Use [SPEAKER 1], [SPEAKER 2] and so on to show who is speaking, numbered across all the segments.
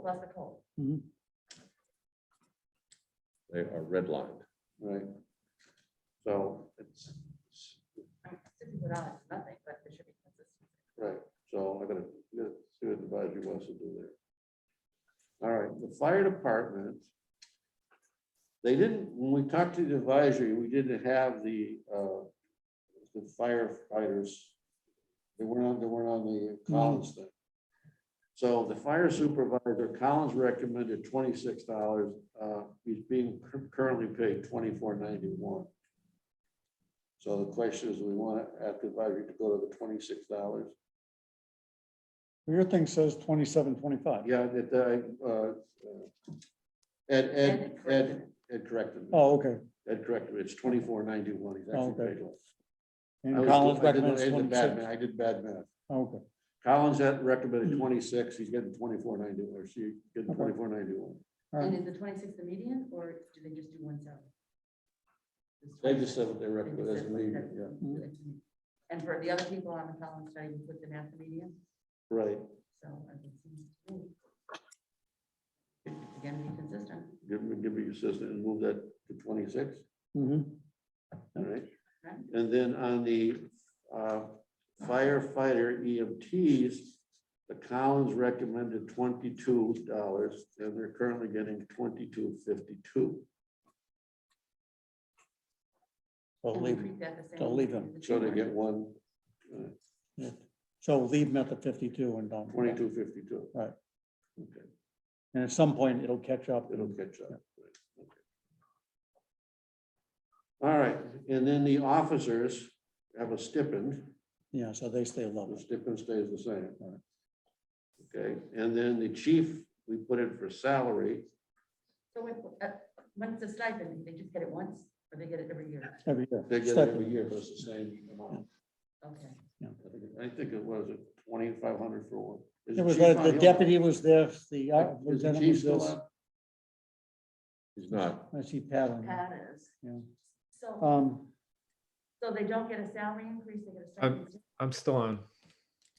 [SPEAKER 1] plus a toll.
[SPEAKER 2] They are redlined.
[SPEAKER 3] Right. So it's, it's-
[SPEAKER 1] Sixty dollars is nothing, but it should be consistent.
[SPEAKER 3] right, so I'm gonna, gonna see what advisory wants to do there. All right, the fire department. They didn't, when we talked to the advisory, we didn't have the, uh, the firefighters. They weren't on, they weren't on the Collins thing. So the fire supervisor, Collins recommended twenty-six dollars, uh, he's being cur- currently paid twenty-four ninety-one. So the question is, we want to ask the advisory to go to the twenty-six dollars.
[SPEAKER 4] Your thing says twenty-seven, twenty-five.
[SPEAKER 3] Yeah, that, I, uh, uh, Ed, Ed,
[SPEAKER 1] And
[SPEAKER 3] Ed, Ed corrected me.
[SPEAKER 4] Oh, okay.
[SPEAKER 3] Ed corrected me. It's twenty-four ninety-one. He's actually
[SPEAKER 4] Okay.
[SPEAKER 3] paid less. I
[SPEAKER 4] And
[SPEAKER 3] was-
[SPEAKER 4] Collins
[SPEAKER 3] I did- I
[SPEAKER 4] recommends
[SPEAKER 3] did bad
[SPEAKER 4] twenty-six.
[SPEAKER 3] math. I did bad math.
[SPEAKER 4] Okay,
[SPEAKER 3] Collins had recommended twenty-six. He's getting twenty-four ninety-one, or she getting
[SPEAKER 4] Okay.
[SPEAKER 3] twenty-four ninety-one.
[SPEAKER 4] all
[SPEAKER 1] And
[SPEAKER 4] right.
[SPEAKER 1] is the twenty-six the median, or do they just do one seven?
[SPEAKER 3] They just said what they
[SPEAKER 1] They just
[SPEAKER 3] recommended as
[SPEAKER 1] said
[SPEAKER 3] a leader,
[SPEAKER 1] one
[SPEAKER 3] yeah.
[SPEAKER 1] seven. And for the other people on the column study, we put them at the median,
[SPEAKER 3] Right.
[SPEAKER 1] so I think it seems to me. Again, be consistent.
[SPEAKER 3] Give me, give me your assistant and move that to twenty-six.
[SPEAKER 4] Mhm.
[SPEAKER 3] All right,
[SPEAKER 1] Right.
[SPEAKER 3] and then on the uh, firefighter EMTs, the Collins recommended twenty-two dollars, and they're currently getting twenty-two fifty-two.
[SPEAKER 4] So
[SPEAKER 1] And we
[SPEAKER 4] leave,
[SPEAKER 1] treat that the same
[SPEAKER 4] Don't leave
[SPEAKER 1] as
[SPEAKER 4] them.
[SPEAKER 1] the
[SPEAKER 3] So they
[SPEAKER 1] two
[SPEAKER 3] get
[SPEAKER 1] ones.
[SPEAKER 3] one
[SPEAKER 4] so leave them at the fifty-two and don't.
[SPEAKER 3] twenty-two fifty-two.
[SPEAKER 4] Right.
[SPEAKER 3] Okay,
[SPEAKER 4] And at some point, it'll catch up.
[SPEAKER 3] it'll catch up. Right, okay. All right, and then the officers have a stipend.
[SPEAKER 4] Yeah, so they stay
[SPEAKER 3] The
[SPEAKER 4] level.
[SPEAKER 3] stipend stays the same.
[SPEAKER 4] Right.
[SPEAKER 3] Okay, and then the chief, we put in for salary.
[SPEAKER 1] So when, uh, when it's a stipend, they just get it once, or they get it every year?
[SPEAKER 4] every year.
[SPEAKER 3] They get it
[SPEAKER 4] Stipend.
[SPEAKER 3] every year, but it's the same amount.
[SPEAKER 1] Okay.
[SPEAKER 3] I think- I think it was twenty-five hundred for one. Is
[SPEAKER 4] It was,
[SPEAKER 3] chief
[SPEAKER 4] that
[SPEAKER 3] on
[SPEAKER 4] the
[SPEAKER 3] hill?
[SPEAKER 4] deputy was this, the uh,
[SPEAKER 3] Is the
[SPEAKER 4] lieutenant
[SPEAKER 3] chief
[SPEAKER 4] was
[SPEAKER 3] still
[SPEAKER 4] this.
[SPEAKER 3] on?
[SPEAKER 2] He's not.
[SPEAKER 4] I see Pat on. there.
[SPEAKER 1] Pat is.
[SPEAKER 4] Yeah.
[SPEAKER 1] So,
[SPEAKER 4] Um,
[SPEAKER 1] so they don't get a salary increase, they get a
[SPEAKER 5] Um,
[SPEAKER 1] stipend.
[SPEAKER 5] I'm still on.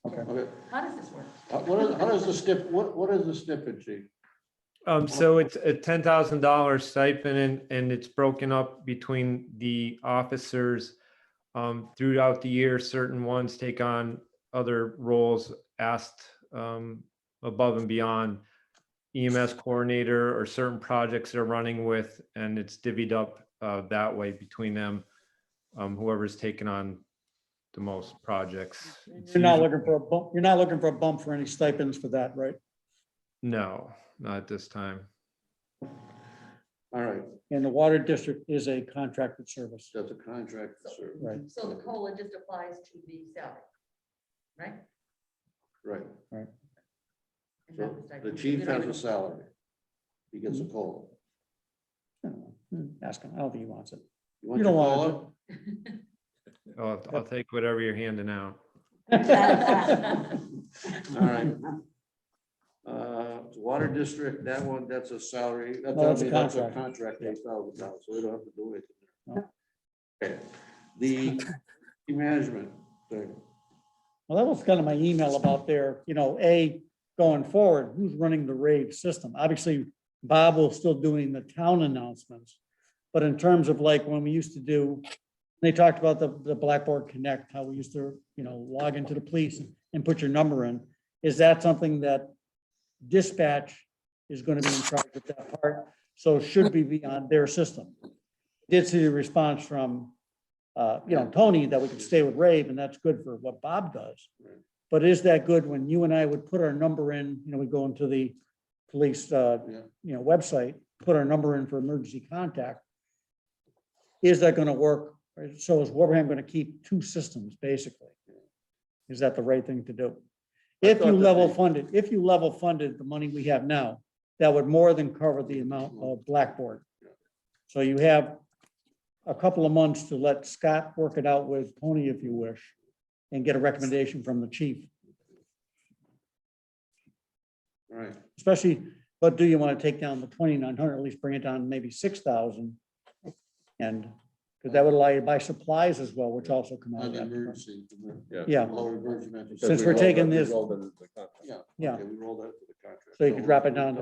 [SPEAKER 4] okay.
[SPEAKER 3] Okay,
[SPEAKER 1] How does this work?
[SPEAKER 3] how, what is, how does the stip, what, what is the stipend, chief?
[SPEAKER 5] Um, so it's a ten thousand dollar stipend and, and it's broken up between the officers. Um, throughout the year, certain ones take on other roles asked, um, above and beyond. EMS coordinator or certain projects they're running with, and it's divvied up, uh, that way between them. Um, whoever's taken on the most projects. It's
[SPEAKER 4] You're not
[SPEAKER 5] usually-
[SPEAKER 4] looking for a bump, you're not looking for a bump for any stipends for that, right?
[SPEAKER 5] No, not at this time.
[SPEAKER 3] All right,
[SPEAKER 4] And the water district is a contracted service,
[SPEAKER 3] that's a contract service,
[SPEAKER 4] right?
[SPEAKER 1] So the COLA just applies to the salary, right?
[SPEAKER 3] right?
[SPEAKER 1] And not
[SPEAKER 3] So the
[SPEAKER 1] stipend.
[SPEAKER 3] chief
[SPEAKER 1] We don't
[SPEAKER 3] has a
[SPEAKER 1] even-
[SPEAKER 3] salary. He gets a COLA.
[SPEAKER 4] hmm, Ask him, I don't think he wants it.
[SPEAKER 3] want
[SPEAKER 4] You don't
[SPEAKER 3] your
[SPEAKER 4] want
[SPEAKER 3] COLA?
[SPEAKER 5] I'll, I'll take whatever you're handing out.
[SPEAKER 3] All right. Uh, water district, that one, that's a salary, that's,
[SPEAKER 4] No, that's
[SPEAKER 3] I
[SPEAKER 4] a
[SPEAKER 3] mean, that's a
[SPEAKER 4] contract.
[SPEAKER 3] contract, eight thousand dollars, so we don't have to do anything.
[SPEAKER 4] No.
[SPEAKER 3] there. Okay. The management thing.
[SPEAKER 4] Well, that was kind of my email about there, you know, A, going forward, who's running the rave system? Obviously, Bob will still doing the town announcements. But in terms of like when we used to do, they talked about the, the Blackboard Connect, how we used to, you know, log into the police and put your number in. Is that something that dispatch is going to be in charge of that part? So should we be on their system? Did see the response from, uh, you know, Tony that we could stay with rave and that's good for what Bob does.
[SPEAKER 3] Right.
[SPEAKER 4] But is that good when you and I would put our number in, you know, we go into the police, uh,
[SPEAKER 3] Yeah.
[SPEAKER 4] you know, website, put our number in for emergency contact. Is that gonna work? Or So is Wilbraham gonna keep two systems, basically? Is that the right thing to do? If
[SPEAKER 3] thought
[SPEAKER 4] you
[SPEAKER 3] that
[SPEAKER 4] level
[SPEAKER 3] they-
[SPEAKER 4] funded, if you level funded the money we have now, that would more than cover the amount of Blackboard. So you have a couple of months to let Scott work it out with Tony if you wish, and get a recommendation from the chief.
[SPEAKER 3] All right,
[SPEAKER 4] especially, but do you want to take down the twenty-nine hundred, at least bring it down maybe six thousand? And, because that would allow you to buy supplies as well, which also come out
[SPEAKER 3] on
[SPEAKER 4] of
[SPEAKER 3] the
[SPEAKER 4] that.
[SPEAKER 3] emergency.
[SPEAKER 4] Yeah,
[SPEAKER 3] Lower emergency.
[SPEAKER 4] Since we're taking this-
[SPEAKER 2] Rolled into the contract.
[SPEAKER 3] Yeah.
[SPEAKER 4] Yeah.
[SPEAKER 3] Okay, we roll that to the contract.
[SPEAKER 4] so you could drop it down to